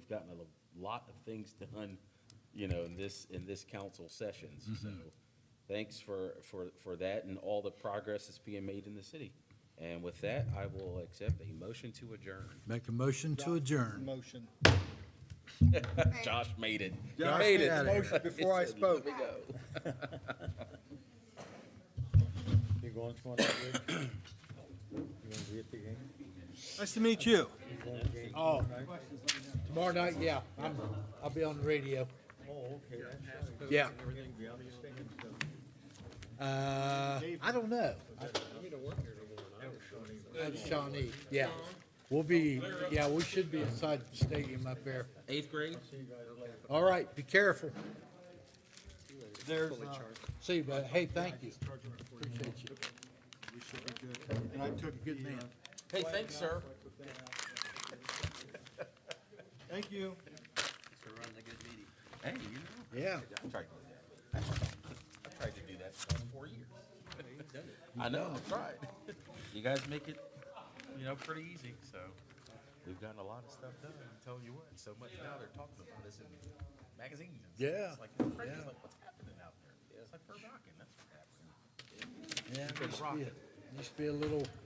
gotten a lot of things done, you know, in this, in this council sessions. Mm-hmm. So thanks for, for, for that and all the progress that's being made in the city. And with that, I will accept a motion to adjourn. Make a motion to adjourn. Motion. Josh made it. He Josh made made it. the motion before I He said, "Let spoke." me go. You going tomorrow night, Rich? You gonna be at the game? Nice to meet you. You going to the game? Oh, Tomorrow night, yeah, I'm, I'll be on the radio. Oh, okay, that's right. Yeah. You're gonna be out of your stand, so Uh, I don't know. That's Shawnee, yeah. We'll be, yeah, we should be inside the stadium up there. Eighth grade? All right, be careful. there's, uh, See, you, but hey, thank you. Appreciate you. we should be good. And I took the, Good man. uh, Hey, thanks, sir. thank you. Hey, you know. Yeah. I tried to do that. I tried to do that for four years. I know, I tried. You guys make it, you know, pretty easy, so. We've gotten a lot of stuff done, I'm telling you what, so much now they're talking about this in magazines. and stuff. Yeah, It's like, it's crazy, yeah. it's like, what's happening out there? It's like, we're rocking, that's what's happening. Yeah, it used to be a- it used to be a little